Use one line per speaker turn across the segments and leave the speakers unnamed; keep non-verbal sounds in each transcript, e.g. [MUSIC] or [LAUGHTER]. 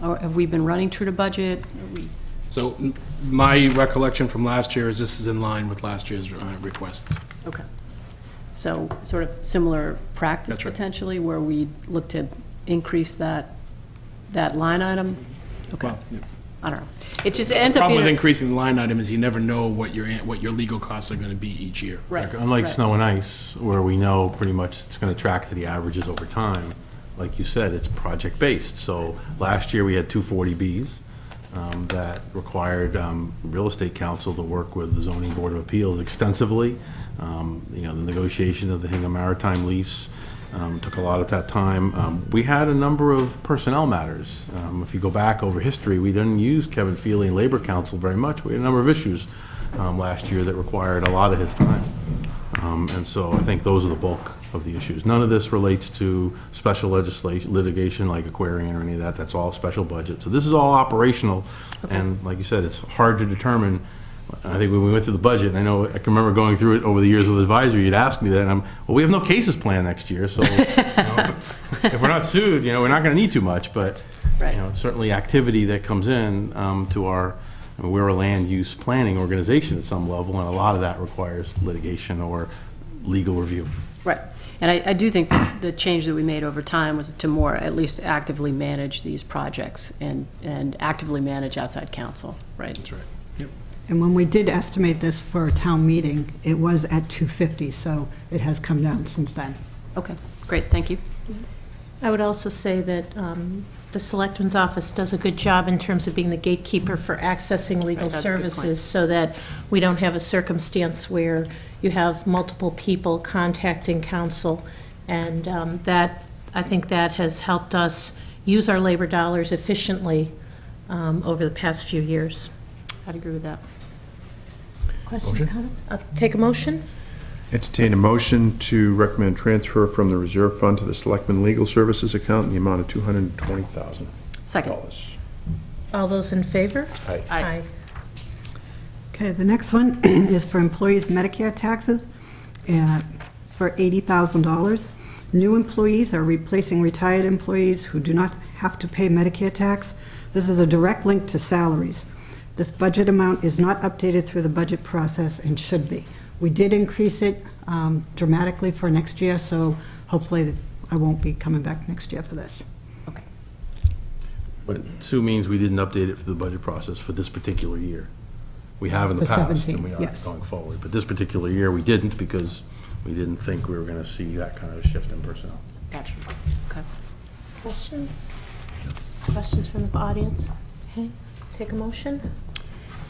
Or have we been running true to budget? Are we-
So m- my recollection from last year is this is in line with last year's uh, requests.
Okay. So sort of similar practice
That's right.
potentially, where we look to increase that, that line item? Okay,
Well, yeah.
I don't know. It just ends up
Problem with
being, a-
increasing the line item is you never know what your, an- what your legal costs are gonna be each year.
right.
Unlike
right.
snow and ice, where we know pretty much it's going to track to the averages over time, like you said, it's project-based. So last year, we had two 40Bs um, that required um, real estate council to work with the zoning board of appeals extensively. Um, You know, the negotiation of the Hingham Maritime lease um, took a lot of that time. Um, We had a number of personnel matters. Um, If you go back over history, we didn't use Kevin Feely and Labor Council very much. We had a number of issues um, last year that required a lot of his time. Um, And so I think those are the bulk of the issues. None of this relates to special legislation, litigation like Aquarian or any of that. That's all special budget. So this is all operational. And like you said, it's hard to determine. I think when we went through the budget, and I know, I can remember going through it over the years with advisory, you'd ask me that, and I'm, well, we have no cases planned next year, so, you know, if we're not sued, you know, we're not gonna need too much, but,
Right.
you know, certainly activity that comes in um, to our, I mean, we're a land use planning organization at some level, and a lot of that requires litigation or legal review.
Right. And I, I do think that the change that we made over time was to more, at least actively manage these projects and, and actively manage outside counsel, right?
That's right. Yep.
And when we did estimate this for a town meeting, it was at 250, so it has come down since then.
Okay, great, thank you.
I would also say that um, the Selectman's Office does a good job in terms of being the gatekeeper for accessing legal
that's a good point.
services, so that we don't have a circumstance where you have multiple people contacting counsel, and um, that, I think that has helped us use our labor dollars efficiently um, over the past few years.
I'd agree with that.
Questions, comments? I'll Uh, Take a motion?
Entertain a motion to recommend transfer from the reserve fund to the Selectmen Legal Services account in the amount of two hundred and twenty thousand
Second.
Oh.
dollars.
All those in favor?
Aye.
Aye.
Okay, the next one [CLEARS THROAT] is for employees' Medicare taxes uh, for $80,000. New employees are replacing retired employees who do not have to pay Medicare tax. This is a direct link to salaries. This budget amount is not updated through the budget process and should be. We did increase it um, dramatically for next year, so hopefully I won't be coming back next year for this.
Okay.
But Sue means we didn't update it for the budget process for this particular year. We have in the
For
past,
17,
and we are
yes.
going forward, but this particular year, we didn't because we didn't think we were gonna see that kind of a shift in personnel.
Gotcha. Okay.
Questions? Questions from the audience? Okay, take a motion?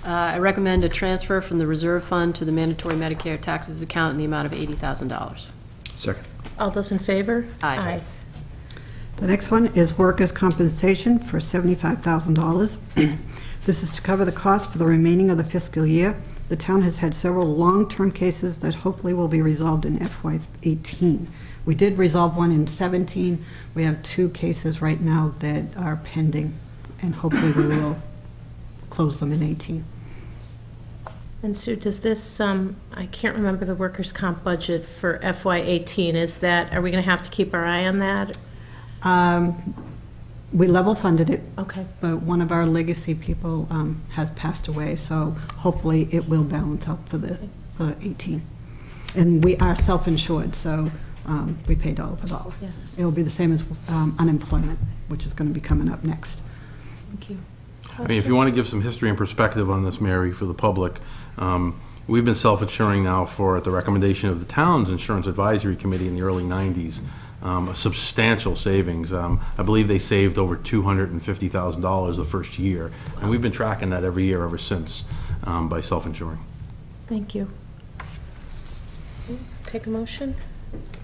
Uh, I recommend a transfer from the reserve fund to the mandatory Medicare taxes account in the amount of $80,000.
Second.
All those in favor?
Aye.
The next one is workers' compensation for $75,000. [CLEARS THROAT] This is to cover the cost for the remaining of the fiscal year. The town has had several long-term cases that hopefully will be resolved in FY '18. We did resolve one in '17. We have two cases right now that are pending, and hopefully we will close them in '18.
And Sue, does this, um, I can't remember the workers' comp budget for FY '18, is that, are we going to have to keep our eye on that?
Um, We level funded it,
Okay,
but one of our legacy people um, has passed away, so hopefully it will balance out for the, for 18. And we are self-insured, so um, we pay dollar for dollar.
yes,
It'll be the same as um, unemployment, which is going to be coming up next.
thank you.
I mean, if you want to give some history and perspective on this, Mary, for the public, um, we've been self-insuring now for, at the recommendation of the town's Insurance Advisory Committee in the early 90s, um, a substantial savings. Um, I believe they saved over $250,000 the first year, and we've been tracking that every year ever since um, by self-insuring.
Thank you. Take a motion?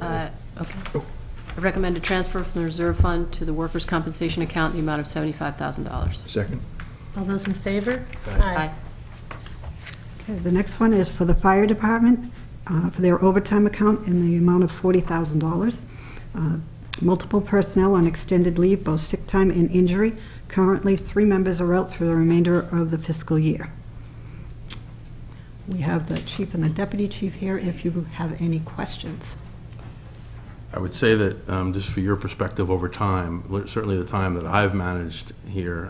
Uh, Okay. I recommend a transfer from the reserve fund to the workers' compensation account in the amount of $75,000.
Second.
All those in favor?
Aye.
Okay, The next one is for the fire department, uh, for their overtime account in the amount of $40,000. Uh, Multiple personnel on extended leave, both sick time and injury. Currently, three members are out through the remainder of the fiscal year. We have the chief and the deputy chief here if you have any questions.
I would say that, um, just for your perspective over time, certainly the time that I've managed here,